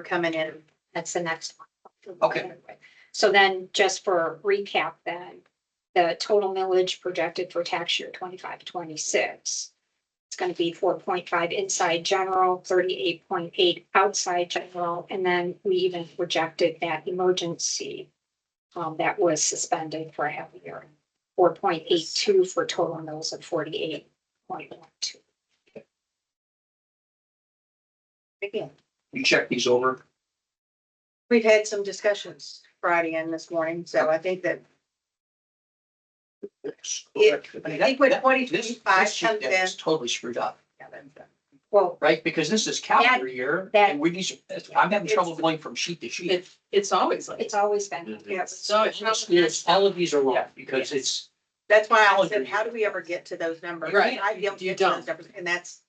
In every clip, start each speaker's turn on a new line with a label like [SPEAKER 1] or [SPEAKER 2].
[SPEAKER 1] coming in, that's the next one.
[SPEAKER 2] Okay.
[SPEAKER 1] So then, just for recap then, the total millage projected for tax year twenty-five, twenty-six. It's gonna be four point five inside general, thirty-eight point eight outside general, and then we even projected that emergency. um, that was suspended for a half a year, four point eight two for total mills of forty-eight point one two.
[SPEAKER 3] Again,
[SPEAKER 2] You check these over.
[SPEAKER 3] we've had some discussions Friday and this morning, so I think that, Yeah, I think when
[SPEAKER 2] That- that- this-
[SPEAKER 3] 2025
[SPEAKER 2] this sheet
[SPEAKER 3] comes
[SPEAKER 2] that
[SPEAKER 3] in-
[SPEAKER 2] is Totally screwed up,
[SPEAKER 1] Well,
[SPEAKER 2] right? Because this is calendar year
[SPEAKER 1] that-
[SPEAKER 2] and we these, I'm having trouble going from sheet to sheet. Mm-hmm.
[SPEAKER 4] It's, it's always like.
[SPEAKER 1] it's always been.
[SPEAKER 5] Mm-hmm.
[SPEAKER 3] yes.
[SPEAKER 4] So it's
[SPEAKER 2] It's- it's- All of these are wrong
[SPEAKER 4] Yeah.
[SPEAKER 2] because it's,
[SPEAKER 3] That's why I said, how do we ever get to those numbers?
[SPEAKER 4] Right.
[SPEAKER 3] I don't
[SPEAKER 4] You
[SPEAKER 3] get to
[SPEAKER 4] don't. Oh.
[SPEAKER 3] those numbers, and that's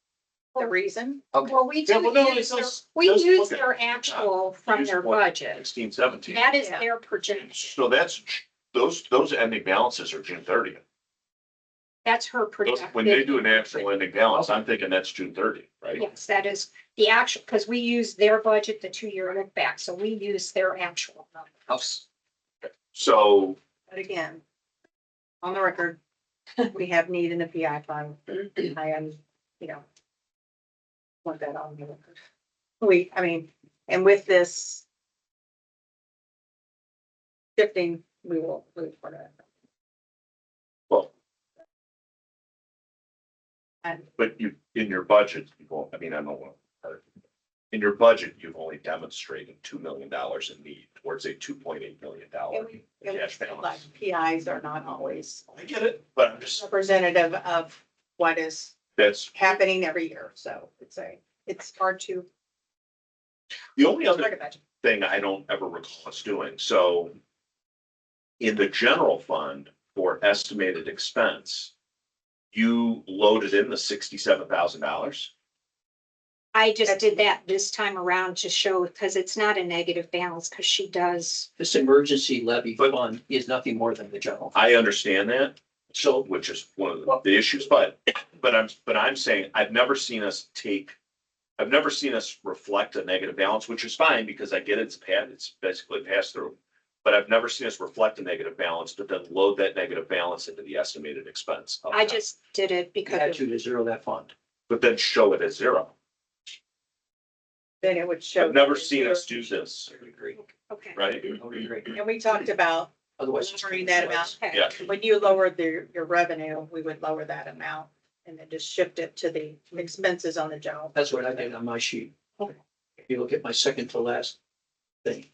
[SPEAKER 3] the reason.
[SPEAKER 2] okay,
[SPEAKER 1] Well, we
[SPEAKER 5] Yeah,
[SPEAKER 1] do
[SPEAKER 5] well, no,
[SPEAKER 1] use
[SPEAKER 5] it's
[SPEAKER 1] their,
[SPEAKER 5] just-
[SPEAKER 1] we
[SPEAKER 5] just
[SPEAKER 1] use
[SPEAKER 5] look at
[SPEAKER 1] their
[SPEAKER 5] it.
[SPEAKER 1] actual from
[SPEAKER 5] Use
[SPEAKER 1] their
[SPEAKER 5] what?
[SPEAKER 1] budget.
[SPEAKER 5] Sixteen, seventeen.
[SPEAKER 1] That is
[SPEAKER 3] Yeah.
[SPEAKER 1] their projection.
[SPEAKER 5] So that's, those, those ending balances are June thirtieth.
[SPEAKER 1] That's her
[SPEAKER 5] Those,
[SPEAKER 1] projection.
[SPEAKER 5] when they do an actual ending balance, I'm thinking that's June thirty, right?
[SPEAKER 1] Yes, that is the actual, because we use their budget, the two-year look back, so we use their actual. number.
[SPEAKER 2] house.
[SPEAKER 5] So
[SPEAKER 3] But again, on the record, we have need in the PI fund. I am, you know, want that on the record. We, I mean, and with this shifting, we will move for that.
[SPEAKER 5] Well.
[SPEAKER 3] And
[SPEAKER 5] But you, in your budget, you won't, I mean, I don't want. In your budget, you've only demonstrated two million dollars in need towards a two point eight million dollar
[SPEAKER 3] and we, and we
[SPEAKER 5] cash
[SPEAKER 3] feel like
[SPEAKER 5] balance.
[SPEAKER 3] PIs are not always
[SPEAKER 5] I get it, but I'm just,
[SPEAKER 3] representative of what is
[SPEAKER 5] that's,
[SPEAKER 3] happening every year, so it's a, it's hard to.
[SPEAKER 5] the only other
[SPEAKER 3] target that.
[SPEAKER 5] thing I don't ever recall us doing, so. In the general fund for estimated expense. You loaded in the sixty-seven thousand dollars?
[SPEAKER 1] I just did that this time around to show, because it's not a negative balance, because she does,
[SPEAKER 2] This emergency levy
[SPEAKER 5] But-
[SPEAKER 2] fund is nothing more than the general.
[SPEAKER 5] I understand that, so, which is one of the- the issues, but, but I'm, but I'm saying, I've never seen us take. I've never seen us reflect a negative balance, which is fine, because I get it's pat, it's basically pass through. But I've never seen us reflect a negative balance, but then load that negative balance into the estimated expense. of
[SPEAKER 1] I
[SPEAKER 5] that.
[SPEAKER 1] just did it
[SPEAKER 2] You had
[SPEAKER 1] because
[SPEAKER 2] to to zero that fund.
[SPEAKER 5] But then show it as zero.
[SPEAKER 3] Then it would show.
[SPEAKER 5] I've never seen us do this,
[SPEAKER 2] I would agree.
[SPEAKER 1] okay.
[SPEAKER 5] right?
[SPEAKER 2] I would agree.
[SPEAKER 3] And we talked about
[SPEAKER 2] Otherwise. it's-
[SPEAKER 3] lowering that amount.
[SPEAKER 1] Okay.
[SPEAKER 5] Yeah.
[SPEAKER 3] When you lowered the, your revenue, we would lower that amount and then just shift it to the expenses on the general.
[SPEAKER 2] That's what I did on my sheet. If you look at my second to last thing,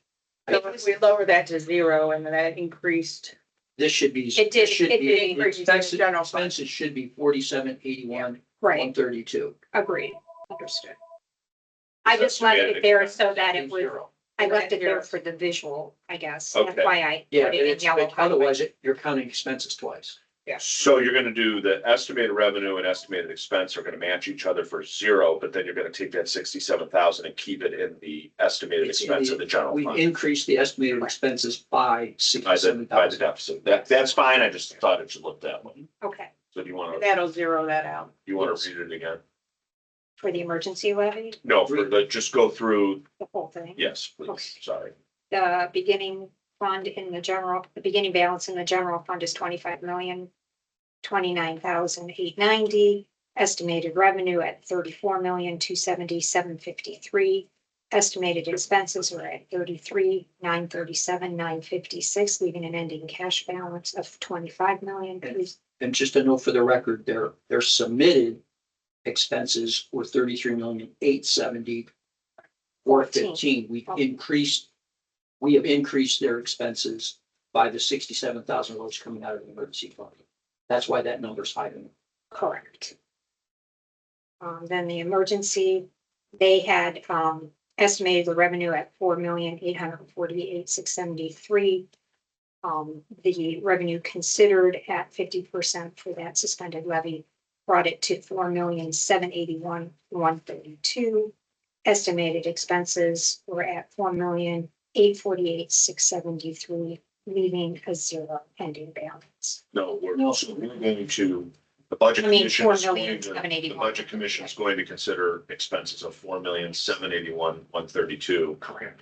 [SPEAKER 3] So if We lower that to zero and then that increased.
[SPEAKER 2] this should be.
[SPEAKER 1] It did-
[SPEAKER 2] this should
[SPEAKER 1] it
[SPEAKER 2] be-
[SPEAKER 1] did
[SPEAKER 3] increase the
[SPEAKER 2] expenses-
[SPEAKER 3] general fund.
[SPEAKER 2] Expenses should be forty-seven, eighty-one,
[SPEAKER 1] Right,
[SPEAKER 2] one thirty-two.
[SPEAKER 1] agreed, understood. I just left it there so that it was, I left it there for the visual, I guess. That's
[SPEAKER 5] Okay.
[SPEAKER 1] why I
[SPEAKER 2] Yeah,
[SPEAKER 1] put
[SPEAKER 2] but
[SPEAKER 1] it in
[SPEAKER 2] it's,
[SPEAKER 1] yellow.
[SPEAKER 2] but otherwise it- you're counting expenses twice.
[SPEAKER 5] So you're gonna do the estimated revenue and estimated expense are gonna match each other for zero, but then you're gonna take that sixty-seven thousand and keep it in the estimated
[SPEAKER 2] It's in
[SPEAKER 5] expense
[SPEAKER 2] the-
[SPEAKER 5] of the general
[SPEAKER 2] We
[SPEAKER 5] fund.
[SPEAKER 2] increased the estimated expenses by
[SPEAKER 5] Oh, By the,
[SPEAKER 2] sixty-seven
[SPEAKER 5] by the
[SPEAKER 2] thousand.
[SPEAKER 5] deficit. That, that's fine. I just thought it should look that way.
[SPEAKER 1] Okay,
[SPEAKER 5] So do you wanna,
[SPEAKER 3] That'll zero that out.
[SPEAKER 5] you wanna
[SPEAKER 2] Yes.
[SPEAKER 5] read it again?
[SPEAKER 1] for the emergency levy,
[SPEAKER 5] No, for the, just go through,
[SPEAKER 1] the whole thing.
[SPEAKER 5] yes, please,
[SPEAKER 1] Okay.
[SPEAKER 5] sorry.
[SPEAKER 1] The beginning fund in the general, the beginning balance in the general fund is twenty-five million, twenty-nine thousand eight ninety. Estimated revenue at thirty-four million, two seventy-seven fifty-three. Estimated expenses are at thirty-three, nine thirty-seven, nine fifty-six, leaving an ending cash balance of twenty-five million. Please,
[SPEAKER 2] And just to note for the record, their, their submitted expenses were thirty-three million, eight seventy, four fifteen. We
[SPEAKER 1] Oh.
[SPEAKER 2] increased, we have increased their expenses by the sixty-seven thousand dollars coming out of the emergency fund. That's why that number's higher.
[SPEAKER 1] Correct. Um, then the emergency, they had, um, estimated the revenue at four million, eight hundred and forty-eight, six seventy-three. Um, the revenue considered at fifty percent for that suspended levy brought it to four million, seven eighty-one, one thirty-two. Estimated expenses were at four million, eight forty-eight, six seventy-three, leaving a zero ending balance.
[SPEAKER 5] No, we're,
[SPEAKER 2] No.
[SPEAKER 5] so we're going to The budget
[SPEAKER 1] I mean,
[SPEAKER 5] commission is
[SPEAKER 1] 4,781,000.
[SPEAKER 5] going to, the budget commission's going to consider expenses of four million, seven eighty-one, one thirty-two. Correct.